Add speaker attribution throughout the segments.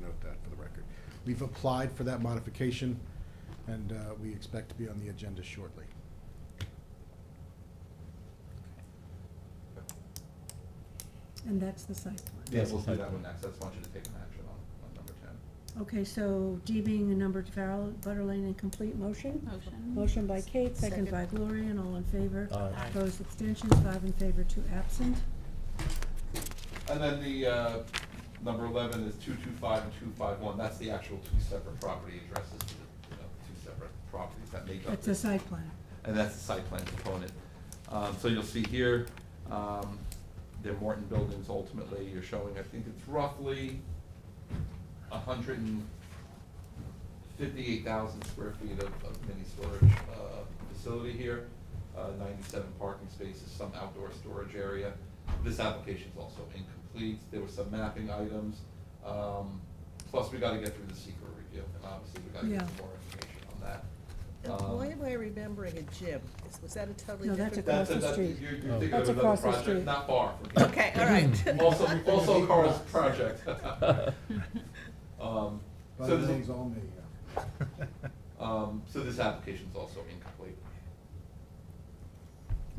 Speaker 1: note that for the record. We've applied for that modification, and uh, we expect to be on the agenda shortly.
Speaker 2: And that's the site
Speaker 3: Yeah,
Speaker 2: plan.
Speaker 3: we'll do that
Speaker 4: Site plan.
Speaker 3: one next, I just want you to take an action on, on number ten.
Speaker 2: Okay, so D being a number to Farrell, Butter Lane, incomplete motion?
Speaker 5: Motion.
Speaker 2: Motion by Kate, second
Speaker 5: Second.
Speaker 2: by Gloria, and all in favor?
Speaker 4: Aye. Aye.
Speaker 2: Opposed, abstentions, five in favor, two absent.
Speaker 3: And then the, uh, number eleven is two-two-five and two-five-one, that's the actual two separate property addresses, you know, two separate properties that make up.
Speaker 2: It's a
Speaker 3: this-
Speaker 2: site plan.
Speaker 3: and that's the site plan component. Um, so you'll see here, um, they're Morton buildings ultimately, you're showing, I think it's roughly hundred and fifty-eight thousand square feet of, of mini storage, uh, facility here. Uh, ninety-seven parking spaces, some outdoor storage area. This application is also incomplete, there were some mapping items, um, plus we gotta get through the secret review, and obviously we gotta get some
Speaker 2: Yeah.
Speaker 3: more information on that.
Speaker 6: And
Speaker 3: Um,
Speaker 6: Why am I remembering a gym? Is- Was that a totally
Speaker 2: No,
Speaker 6: different?
Speaker 2: that's a
Speaker 3: that's,
Speaker 2: Across the
Speaker 3: that's, you're,
Speaker 2: street.
Speaker 3: you're
Speaker 4: Oh.
Speaker 3: thinking
Speaker 2: That's
Speaker 3: of another
Speaker 2: across the
Speaker 3: project,
Speaker 2: street.
Speaker 3: not far from here.
Speaker 6: Okay, all right.
Speaker 3: Also, also Carl's project. Um,
Speaker 1: By
Speaker 3: so
Speaker 1: the
Speaker 3: this,
Speaker 1: names all me, yeah.
Speaker 3: um, so this application's also incomplete.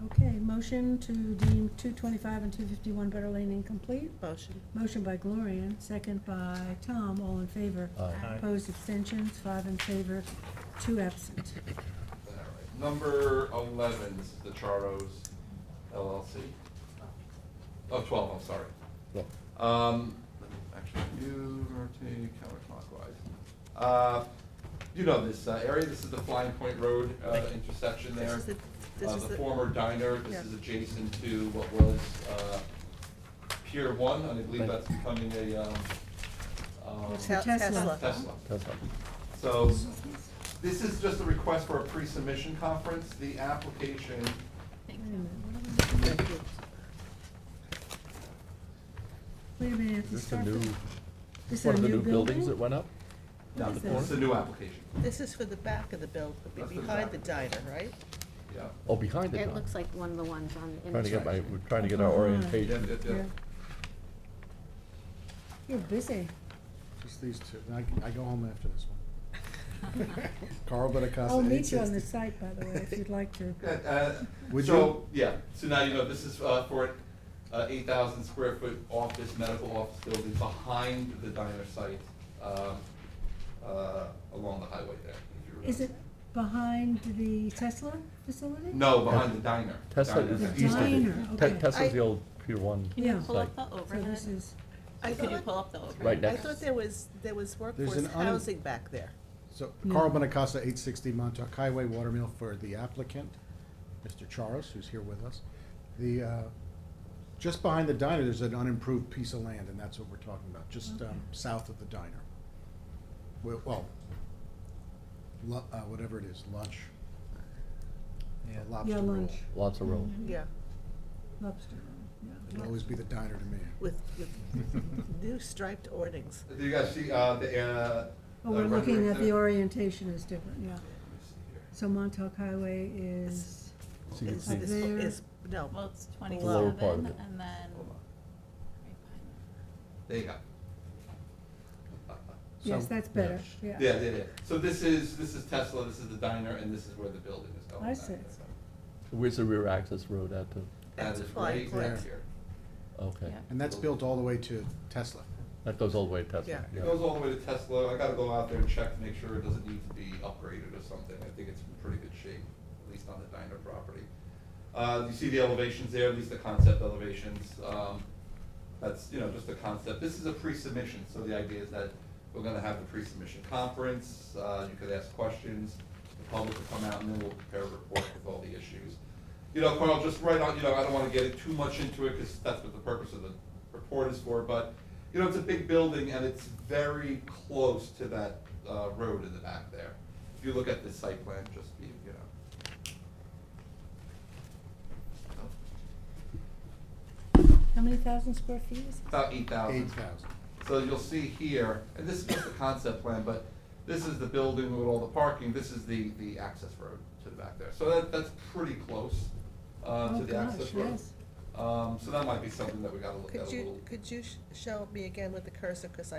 Speaker 2: Okay, motion to deem two twenty-five and two fifty-one Butter Lane incomplete.
Speaker 6: Motion.
Speaker 2: Motion by Gloria, second by Tom, all in favor?
Speaker 4: Aye. Aye.
Speaker 2: Opposed, abstentions, five in favor, two absent.
Speaker 3: All right. Number eleven, this is the Charros LLC. Oh, twelve, I'm sorry.
Speaker 4: Well,
Speaker 3: Um, let me actually, you rotate counterclockwise. Uh, you know this uh, area, this is the Flying Point Road, uh, intersection there.
Speaker 6: This is the- this
Speaker 3: Uh,
Speaker 6: is
Speaker 3: the
Speaker 6: the-
Speaker 3: former diner,
Speaker 6: Yeah.
Speaker 3: this is adjacent to what was, uh, Pier One, and I believe
Speaker 4: Right.
Speaker 3: that's becoming a, um, um,
Speaker 2: Hotel. Tesla.
Speaker 3: Tesla.
Speaker 4: that's not-
Speaker 3: So, this is just a request for a pre-submission conference, the application,
Speaker 5: Thanks.
Speaker 2: Wait a minute, what am I-
Speaker 6: Thank you.
Speaker 2: Wait a minute,
Speaker 4: Is
Speaker 2: if you
Speaker 4: this the
Speaker 2: start
Speaker 4: new,
Speaker 2: from- This is
Speaker 4: one
Speaker 2: a
Speaker 4: of the
Speaker 2: new
Speaker 4: new buildings
Speaker 2: building?
Speaker 4: that went up?
Speaker 2: What
Speaker 3: now
Speaker 2: is
Speaker 3: the,
Speaker 2: this?
Speaker 3: it's a new application,
Speaker 6: This is for the back of the build,
Speaker 3: That's the
Speaker 6: behind the
Speaker 3: back.
Speaker 6: diner, right?
Speaker 3: yeah.
Speaker 4: Oh, behind it
Speaker 7: It
Speaker 4: now.
Speaker 7: looks like one of the ones on the
Speaker 4: Trying to get my,
Speaker 7: intersection.
Speaker 4: we're trying to get our
Speaker 2: Uh-huh.
Speaker 3: Yeah,
Speaker 4: orientation.
Speaker 3: yeah, yeah.
Speaker 2: You're busy.
Speaker 1: Just these two. And I, I go home after this one. Carl Benacasa.
Speaker 2: I'll meet you on the
Speaker 1: 860.
Speaker 2: site, by the way, if you'd like to.
Speaker 3: Good, uh,
Speaker 1: Would
Speaker 3: so, yeah, so now you know, this is, uh, for, uh, eight thousand square foot office, medical office building behind the diner site, um, uh, along the highway there. if you remember.
Speaker 2: Is it behind the Tesla facility?
Speaker 3: No, behind the diner.
Speaker 4: Tesla
Speaker 3: Diner
Speaker 4: is
Speaker 3: next
Speaker 2: The
Speaker 4: east
Speaker 3: door.
Speaker 4: of it.
Speaker 2: diner,
Speaker 4: Te-
Speaker 2: okay.
Speaker 4: Tesla's
Speaker 6: I-
Speaker 4: the old Pier One
Speaker 5: Can you
Speaker 2: Yeah.
Speaker 5: pull
Speaker 4: site.
Speaker 5: up the
Speaker 2: So
Speaker 5: overhead?
Speaker 2: this is,
Speaker 6: I
Speaker 5: Can you
Speaker 6: thought,
Speaker 5: pull up the overhead?
Speaker 4: Right
Speaker 6: I
Speaker 4: next.
Speaker 6: thought there was, there was workforce
Speaker 1: an un-
Speaker 6: housing back there.
Speaker 1: So
Speaker 2: No.
Speaker 1: Carl Benacasa, eight sixty Montauk Highway, Watermill for the applicant, Mr. Charos, who's here with us. The, uh, just behind the diner, there's an unimproved piece of land, and that's what we're talking about, just,
Speaker 2: Okay.
Speaker 1: um, south of the diner. Well, well, lu- uh, whatever it is, lunch. Yeah. Lobster
Speaker 2: yeah,
Speaker 1: roll.
Speaker 2: lunch,
Speaker 4: Lots of room.
Speaker 6: Yeah,
Speaker 2: lobster, yeah.
Speaker 1: It'll always be the diner to me.
Speaker 6: with, with new striped awnings.
Speaker 3: Do you guys see, uh, the, uh?
Speaker 2: Oh, we're
Speaker 3: the
Speaker 2: looking
Speaker 3: rendering
Speaker 2: at the
Speaker 3: there?
Speaker 2: orientation is different, yeah.
Speaker 3: Let me see here.
Speaker 2: So Montauk Highway Mm-hmm. is,
Speaker 4: So you can
Speaker 6: Is-
Speaker 4: see Oh,
Speaker 6: is-
Speaker 2: There.
Speaker 6: is- No,
Speaker 5: Well, it's
Speaker 6: The lower
Speaker 4: part
Speaker 5: twenty-seven
Speaker 4: of it.
Speaker 5: and then.
Speaker 3: Hold on.
Speaker 5: right
Speaker 3: There you go.
Speaker 2: yes,
Speaker 1: So-
Speaker 2: that's better, yeah.
Speaker 3: Yeah, yeah, yeah. So this is, this is Tesla, this is the diner, and this is where the building is going.
Speaker 2: I
Speaker 3: back
Speaker 2: see.
Speaker 3: there.
Speaker 4: Where's the rear access road at the,
Speaker 3: That
Speaker 6: That's
Speaker 3: is
Speaker 6: fine,
Speaker 3: right
Speaker 6: correct.
Speaker 3: right here.
Speaker 4: okay.
Speaker 5: Yeah.
Speaker 1: And that's built all the way to Tesla.
Speaker 4: That goes all the way to Tesla,
Speaker 6: Yeah.
Speaker 3: It
Speaker 4: yeah.
Speaker 3: goes all the way to Tesla. I gotta go out there and check to make sure it doesn't need to be upgraded or something. I think it's in pretty good shape, at least on the diner property. Uh, you see the elevations there, at least the concept elevations. Um, that's, you know, just a concept. This is a pre-submission, so the idea is that we're gonna have the pre-submission conference. Uh, you could ask questions, the public will come out, and then we'll prepare a report with all the issues. You know, Carl, just right on, you know, I don't wanna get it too much into it, cause that's what the purpose of the report is for, but, you know, it's a big building and it's very close to that, uh, road in the back there. If you look at the site plan, just be, you know.
Speaker 2: How many thousand square feet is it?
Speaker 3: About eight thousand.
Speaker 1: Eight thousand.
Speaker 3: So you'll see here, and this is just the concept plan, but this is the building with all the parking, this is the, the access road to the back there. So that, that's pretty close, uh,
Speaker 2: Oh,
Speaker 3: to the
Speaker 2: gosh,
Speaker 3: access road.
Speaker 2: yes.
Speaker 3: Um, so that might be something that we gotta look at a
Speaker 6: Could
Speaker 4: oh.
Speaker 3: little.
Speaker 6: you, could you sh- show me again with the cursor, because I